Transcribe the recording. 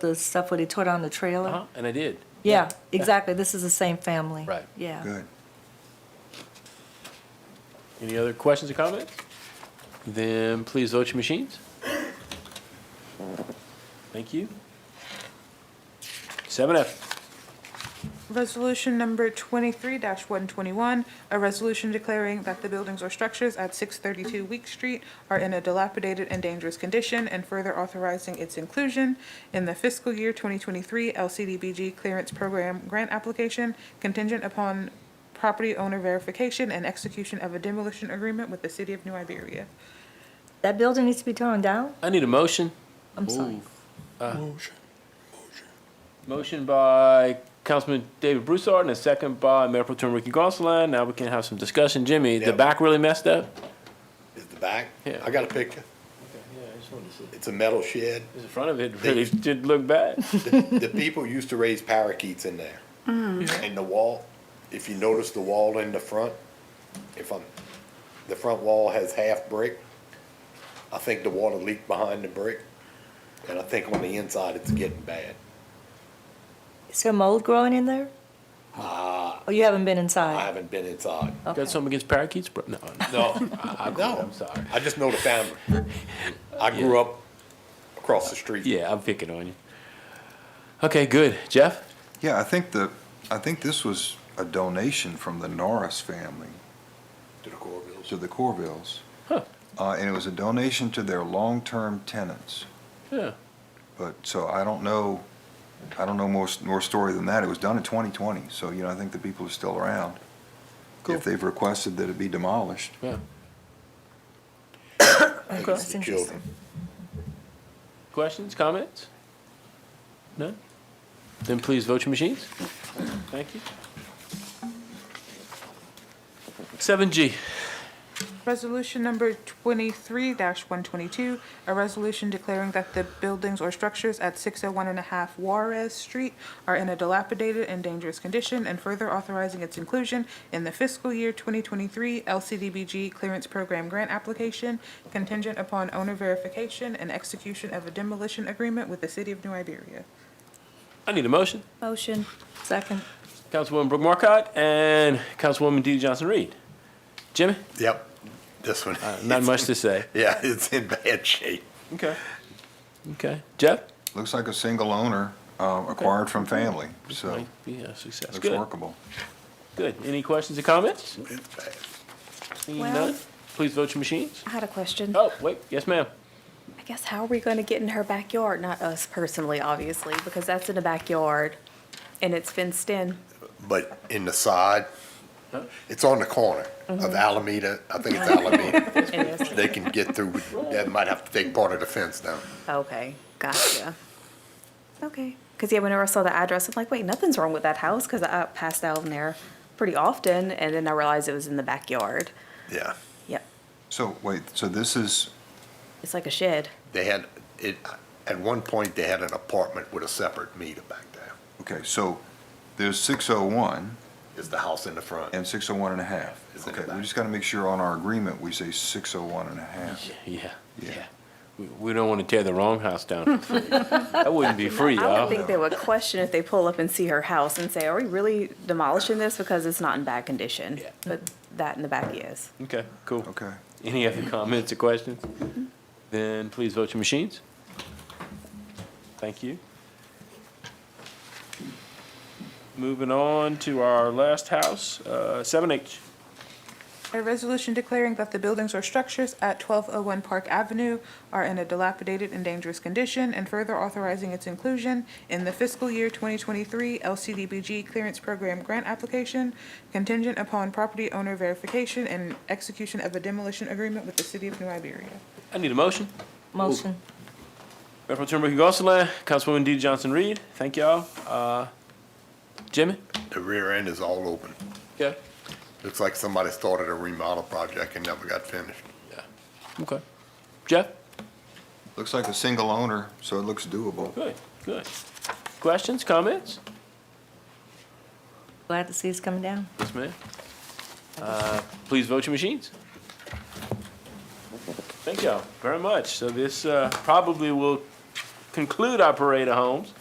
the stuff where they tore down the trailer? Uh-huh, and I did. Yeah, exactly, this is the same family. Right. Yeah. Good. Any other questions or comments? Then please vote your machines. Thank you. Seven F, Resolution number twenty-three one twenty-one, a resolution declaring that the buildings or structures at six thirty-two Week Street are in a dilapidated and dangerous condition, and further authorizing its inclusion in the fiscal year twenty twenty-three LCDBG Clearance Program Grant Application contingent upon property owner verification and execution of a demolition agreement with the city of New Iberia. That building needs to be torn down? I need a motion. I'm sorry. Oh, Motion by Councilman David Broussard and a second by Mayor Pro Tem Ricky Gonsalas. Now we can have some discussion. Jimmy, the Yeah. back really messed up? Is the back? Yeah. I got a picture. Yeah, I just wanted to see. It's a metal shed. The front of it really did look bad. The, the people used to raise parakeets in there. Mm. And the wall, if you notice the wall in the front, if I'm, the front wall has half brick. I think the water leaked behind the brick. And I think on the inside, it's getting bad. Is there mold growing in there? Ah, Oh, you haven't been I inside? haven't been inside. Okay. Got something against parakeets, bro? No, no, No, Oh. I, I agree. no. I'm sorry. I just know the family. I grew up across the street. Yeah, I'm picking on you. Okay, good. Jeff? Yeah, I think the, I think this was a donation from the Norris family To the Corvilles. to the Corvilles. Huh. Uh, and it was a donation to their long-term tenants. Yeah. But, so I don't know, I don't know more, s- more story than that. It was done in 2020, so, you know, I think the people are still around. Cool. If they've requested that it be demolished. Yeah. I think Okay. it's That's the interesting. children. Questions, comments? None? Then please vote your machines. Thank you. Seven G, Resolution number twenty-three one twenty-two, a resolution declaring that the buildings or structures at six oh one and a half Juarez Street are in a dilapidated and dangerous condition, and further authorizing its inclusion in the fiscal year twenty twenty-three LCDBG Clearance Program Grant Application contingent upon owner verification and execution of a demolition agreement with the city of New Iberia. I need a motion. Motion. Second. Councilwoman Brooke Marcotte and Councilwoman Dee Johnson Reed. Jimmy, Yep, this one. Uh, not much to say. Yeah, Uh, it's in bad shape. Okay. Okay. Jeff? Looks like a single owner, uh, acquired from family, so Might be a success. looks Good, workable. good. Any questions or comments? It's bad. Seeing Well- none, please vote your machines. I had a question. Oh, wait, yes, ma'am. I guess how are we going to get in her backyard? Not us personally, obviously, because that's in the backyard and it's fenced in. But in the side, Huh? it's on the corner of Alameda. I think it's Alameda. It is- they can get through. They might have to take part of the fence down. Okay, gotcha. Okay, because yeah, whenever I saw the address, I'm like, wait, nothing's wrong with that house because I passed out in there pretty often and then I realized it was in the backyard. Yeah, Yep, So, wait, so this is, it's like a shed. they had it. At one point, they had an apartment with a separate meter back there. okay, so there's 601. Is the house in the front? And 601 and a half. Is it Okay, back? we just got to make sure on our agreement, we say 601 and a half. Yeah, Yeah. yeah. We, we don't want to tear the wrong house down. for free. That wouldn't be free, I y'all. would think they would question if they pull up and see her house and say, are we really demolishing this because it's not in bad condition? Yeah. But that in the back is. Okay, cool. Okay. Any other comments or questions? Then please vote your machines. Thank you. Moving on to our last house, uh, seven H. A resolution declaring that the buildings or structures at 1201 Park Avenue are in a dilapidated and dangerous condition, and further authorizing its inclusion in the fiscal year 2023 LCDBG Clearance Program Grant Application contingent upon property owner verification and execution of a demolition agreement with the city of New Iberia. I need a motion. Motion. Mayor Pro Tem Ricky Gonsalas, Councilwoman Dee Johnson Reed, thank y'all. Uh, Jimmy? the rear end is all open. Yeah. Looks like somebody started a remodel project and never got finished. Okay. Jeff? Looks like a single owner, so it looks doable. Good, good. Questions, comments? Glad to see it's coming down. Yes, ma'am. Uh, Please vote your machines. Thank y'all very much. So this uh, probably will conclude our parade of homes.